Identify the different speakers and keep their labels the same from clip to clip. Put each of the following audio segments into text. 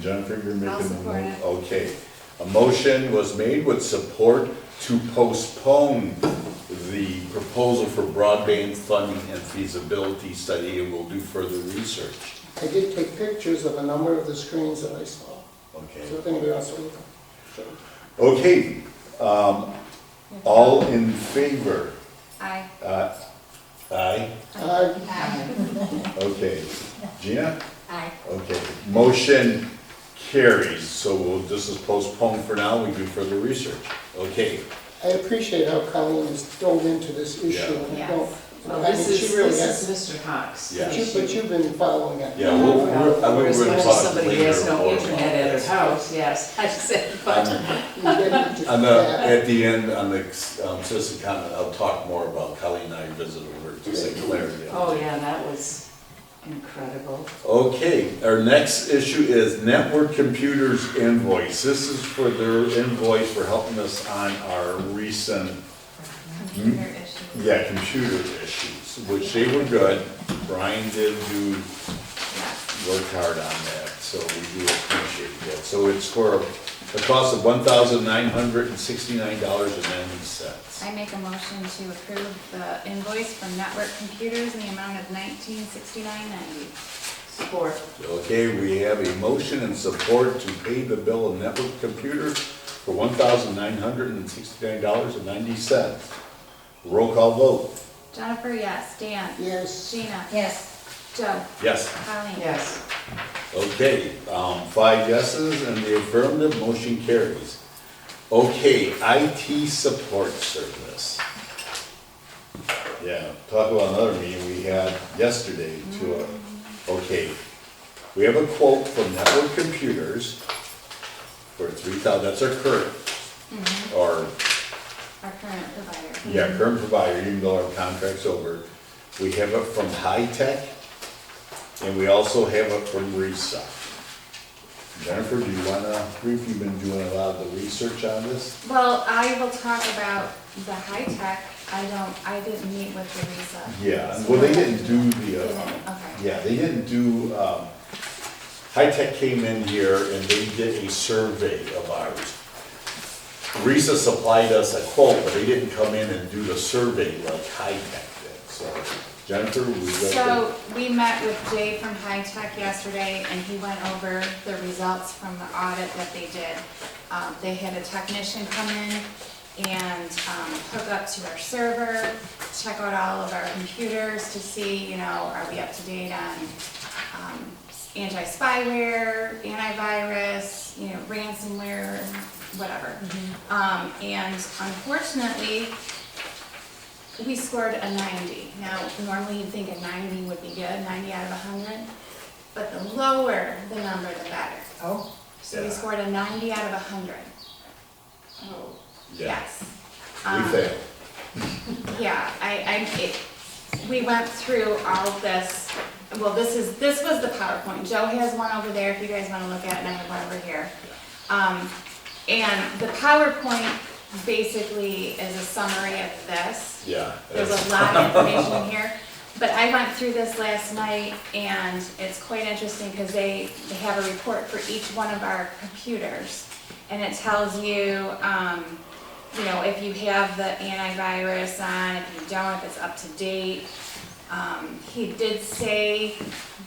Speaker 1: Jennifer, you're making.
Speaker 2: I'll
Speaker 1: the
Speaker 2: support
Speaker 1: mo-
Speaker 2: it.
Speaker 1: Okay. A motion was made with support to postpone the proposal for broadband funding and feasibility study, and we'll do further research.
Speaker 3: I did take pictures of a number of the screens that I saw,
Speaker 1: Okay.
Speaker 3: so if anybody wants to look. sure.
Speaker 1: Okay, um, all in favor?
Speaker 2: Aye.
Speaker 1: Uh, Aye?
Speaker 3: Uh,
Speaker 2: Aye.
Speaker 1: Okay. Gina?
Speaker 2: Aye.
Speaker 1: Okay, motion carries, so we'll, this is postponed for now, we do further research. Okay,
Speaker 3: I appreciate how Colleen has dove into this issue, and I don't,
Speaker 2: Yes.
Speaker 4: Well,
Speaker 3: I mean,
Speaker 4: this is,
Speaker 3: she really
Speaker 4: this
Speaker 3: has.
Speaker 4: is Mr. Cox.
Speaker 1: Yeah.
Speaker 3: But you- but you've been following it.
Speaker 1: yeah, we'll, we're, I mean,
Speaker 4: Whereas
Speaker 1: we're gonna
Speaker 4: much as
Speaker 1: talk
Speaker 4: somebody who
Speaker 1: later
Speaker 4: has no
Speaker 1: more
Speaker 4: internet
Speaker 1: about
Speaker 4: at her
Speaker 1: this.
Speaker 4: house, yes, I said, but
Speaker 1: On
Speaker 3: You didn't do
Speaker 1: on the,
Speaker 3: that.
Speaker 1: at the end, on the, um, citizen comment, I'll talk more about Kelly and I visited her, just like clarity.
Speaker 4: Oh, yeah, that was incredible.
Speaker 1: Okay, our next issue is Network Computers invoice. This is for their invoice for helping us on our recent, Mm-hmm.
Speaker 2: Computer issues.
Speaker 1: yeah, computer issues, which they were good. Brian did do,
Speaker 2: Yes.
Speaker 1: work hard on that, so we do appreciate that. So it's for a cost of one thousand nine hundred and sixty-nine dollars and ninety cents.
Speaker 2: I make a motion to approve the invoice from Network Computers in the amount of nineteen sixty-nine ninety.
Speaker 4: Support.
Speaker 1: Okay, we have a motion and support to pay the bill of network computers for one thousand nine hundred and sixty-nine dollars and ninety cents. Roll call vote.
Speaker 2: Jennifer, yes. Dan?
Speaker 3: Yes,
Speaker 2: Gina?
Speaker 5: Yes,
Speaker 2: Joe?
Speaker 1: Yes.
Speaker 2: Colleen?
Speaker 4: Yes,
Speaker 1: Okay, um, five yeses and the affirmative, motion carries. Okay, IT support service. Yeah, talk about another meeting we had yesterday to, uh, okay. We have a quote from Network Computers for three thousand, that's our current, our
Speaker 2: Our current provider.
Speaker 1: yeah, current provider, even though our contract's over, we have it from High Tech, and we also have it from RESA. Jennifer, do you wanna, brief? you've been doing a lot of the research on this?
Speaker 2: Well, I will talk about the high-tech. I don't, I didn't meet with Teresa.
Speaker 1: Yeah, well, they didn't do the,
Speaker 2: They
Speaker 1: uh,
Speaker 2: didn't? Okay.
Speaker 1: yeah, they didn't do, um, High Tech came in here and they did a survey of ours. RESA supplied us a quote, but they didn't come in and do the survey like High Tech did, so Jennifer, we got the.
Speaker 2: So we met with Jay from High Tech yesterday and he went over the results from the audit that they did. Um, They had a technician come in and um, hook up to our server, check out all of our computers to see, you know, are we up to date on um, anti-spyware, antivirus, you know, ransomware, whatever. Um, And unfortunately, we scored a ninety. Now, normally you'd think a ninety would be good, ninety out of hundred, but the lower the number, the better.
Speaker 5: oh,
Speaker 2: So we
Speaker 1: Yeah.
Speaker 2: scored a ninety out of hundred,
Speaker 4: oh,
Speaker 1: Yeah,
Speaker 2: yes.
Speaker 1: we
Speaker 2: Um,
Speaker 1: failed.
Speaker 2: Yeah, I, I, it, we went through all of this, well, this is, this was the PowerPoint. Joe has one over there if you guys wanna look at it, and I have one over here. Um, and the PowerPoint basically is a summary of this.
Speaker 1: Yeah.
Speaker 2: There's a lot of information in here, but I went through this last night and it's quite interesting because they, they have a report for each one of our computers. And it tells you, um, you know, if you have the antivirus on, if you don't, if it's up to date. Um, he did say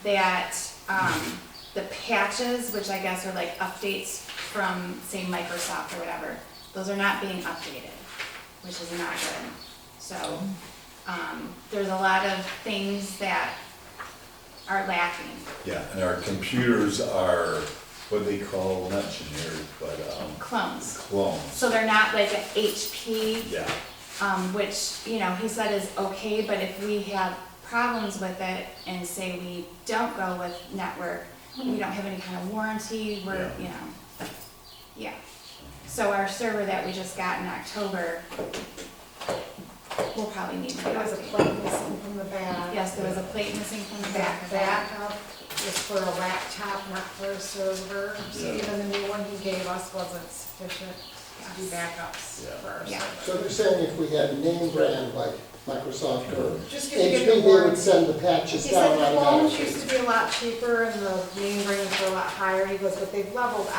Speaker 2: that, um, the patches, which I guess are like updates from, say, Microsoft or whatever, those are not being updated, which is not good. So, um, there's a lot of things that are lacking.
Speaker 1: Yeah, and our computers are, what they call, not generic, but um,
Speaker 2: Clones.
Speaker 1: clones.
Speaker 2: So they're not like a HP,
Speaker 1: Yeah,
Speaker 2: um, which, you know, he said is okay, but if we have problems with it and say we don't go with network, we don't have any kind of warranty, we're,
Speaker 1: Yeah.
Speaker 2: you know, yeah. So our server that we just got in October, we'll probably need to
Speaker 5: there was a
Speaker 2: update.
Speaker 5: plate missing from the back.
Speaker 2: Yes, there was a plate missing from the back
Speaker 5: That
Speaker 2: of that.
Speaker 5: backup is for a laptop, not for a server, so
Speaker 1: Yeah.
Speaker 5: even the new one he gave us wasn't sufficient to do backups
Speaker 1: Yeah.
Speaker 5: for our
Speaker 2: Yeah.
Speaker 5: server.
Speaker 3: so they're saying if we had name brand like Microsoft
Speaker 1: Uh-huh.
Speaker 3: or
Speaker 5: Just because you
Speaker 3: HP,
Speaker 5: get
Speaker 3: they
Speaker 5: the warranty.
Speaker 3: would send the patches
Speaker 5: He
Speaker 3: down
Speaker 5: said the phones
Speaker 3: automatically.
Speaker 5: used to be a lot cheaper and the main brands were a lot higher, he goes, but they've leveled